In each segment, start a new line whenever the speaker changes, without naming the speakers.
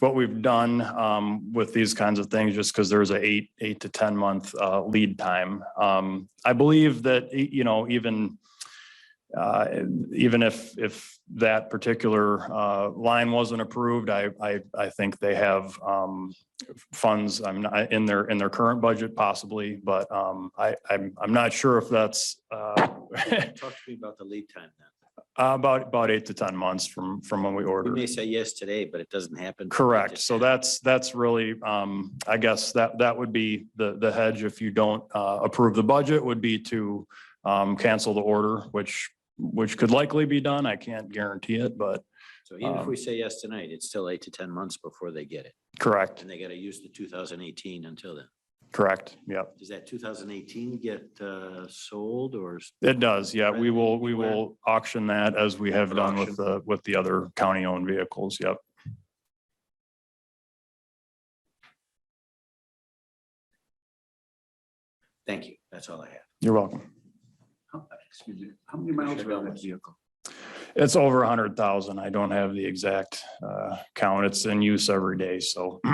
what we've done um, with these kinds of things, just because there's a eight, eight to 10 month uh, lead time. Um, I believe that, y- you know, even, uh, even if, if that particular uh, line wasn't approved, I, I, I think they have um, funds, I'm not, in their, in their current budget possibly, but um, I, I'm, I'm not sure if that's uh,
Talk to me about the lead time then.
about, about eight to 10 months from, from when we
We
ordered.
may say yes today, but it doesn't happen.
Correct. So that's, that's really, um, I guess that, that would be the, the hedge if you don't, uh, approve the budget would be to, um, cancel the order, which, which could likely be done. I can't guarantee it, but
So even if
um,
we say yes tonight, it's still eight to ten months before they get it.
correct,
And they gotta use the two thousand eighteen until then.
correct. Yep.
Does that two thousand eighteen get uh sold or? s-
It does. Yeah. We will, we
Where?
will auction that as we have done with
Auction.
the, with the other county owned vehicles. Yep.
Thank you. That's all I have.
You're welcome.
How- Excuse me, how many miles
Commissioner
are on that
Gomez.
vehicle?
It's over a hundred thousand. I don't have the exact, uh, count. It's in use every day. So
You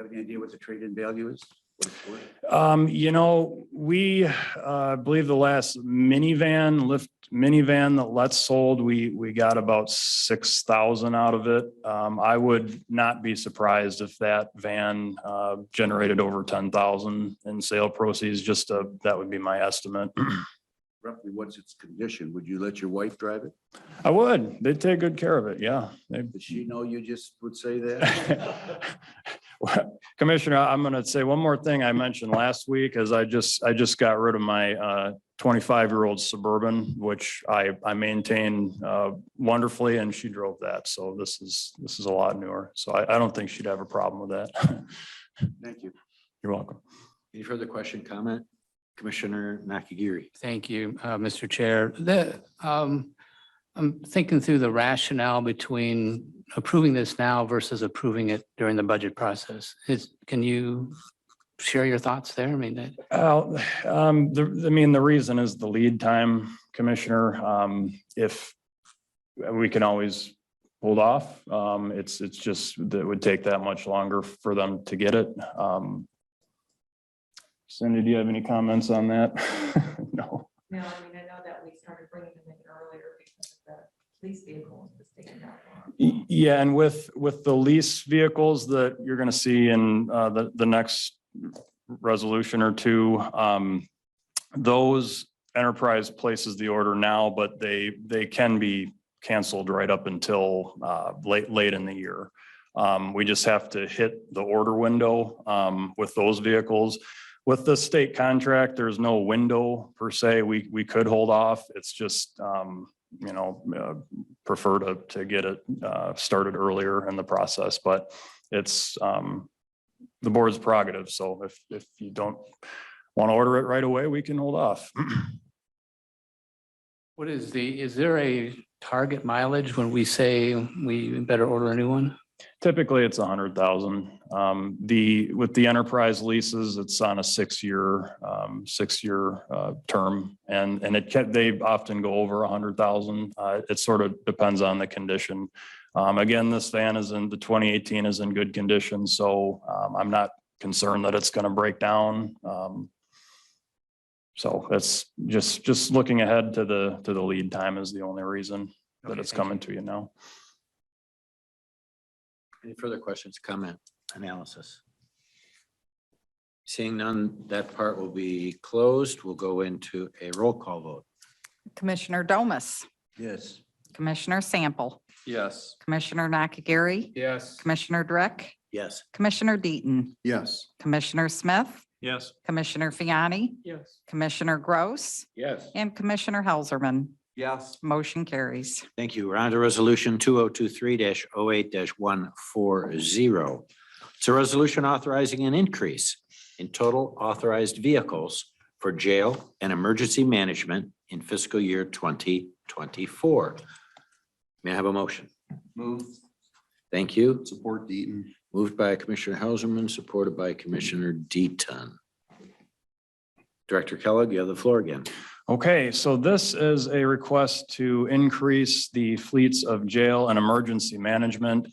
have any idea what the trade-in value is? What it's worth?
Um, you know, we, uh, I believe the last minivan, lift minivan that Let's sold, we, we got about six thousand out of it. Um, I would not be surprised if that van, uh, generated over ten thousand in sale proceeds, just, uh, that would be my estimate.
Roughly, what's its condition? Would you let your wife drive it?
I would, they'd take good care of it, yeah. They-
Does she know you just would say that?
Commissioner, I'm going to say one more thing I mentioned last week is I just, I just got rid of my uh, 25-year-old Suburban, which I, I maintain uh, wonderfully, and she drove that. So this is, this is a lot newer. So I, I don't think she'd have a problem with that.
Thank you.
You're welcome.
Any further question, comment? Commissioner Nakagiri.
Thank you, uh, Mr. Chair. The, um, I'm thinking through the rationale between approving this now versus approving it during the budget process. Is, can you share your thoughts there? I mean, that-
Well, um, the, I mean, the reason is the lead time, Commissioner. Um, if we can always hold off, um, it's, it's just that it would take that much longer for them to get it. Um, Cindy, do you have any comments on that? No.
No, I mean, I know that we started bringing them in earlier because of the police vehicles was taking that long.
Y- Yeah, and with, with the lease vehicles that you're going to see in uh, the, the next resolution or two, um, those enterprise places the order now, but they, they can be canceled right up until uh, late, late in the year. Um, We just have to hit the order window um, with those vehicles. With the state contract, there's no window per se. We, we could hold off. It's just, um, you know, uh, prefer to, to get it uh, started earlier in the process, but it's um, the board's prerogative. So if, if you don't want to order it right away, we can hold off.
what is the, is there a target mileage when we say we better order a new one?
Typically, it's a hundred thousand. Um, the, with the enterprise leases, it's on a six-year, um, six-year, uh, term. And, and it can, they often go over a hundred thousand. Uh, it sort of depends on the condition. Um, again, this van is in, the twenty eighteen is in good condition, so, um, I'm not concerned that it's gonna break down. Um, so that's just, just looking ahead to the, to the lead time is the only reason that
Okay,
it's
thank you.
coming to you now.
Any further questions, comment, analysis? Seeing none, that part will be closed. We'll go into a roll call vote.
Commissioner Domas,
Yes.
Commissioner Sample. Yes. Commissioner Nakagiri,
Yes.
Commissioner Dreck,
Yes.
Commissioner Deaton,
Yes.
Commissioner Smith,
Yes.
Commissioner Fiani,
Yes.
Commissioner Gross,
Yes.
and Commissioner Helserman.
Yes.
Motion carries.
Thank you. We're on to resolution two oh two three 8 one four zero. It's a resolution authorizing an increase in total authorized vehicles for jail and emergency management in fiscal year twenty twenty-four. May I have a motion?
Move,
Thank you.
support Deaton.
Moved by Commissioner Helserman, supported by Commissioner Deaton. Director Kellogg, you have the floor again.
Okay, so this is a request to increase the fleets of jail and emergency management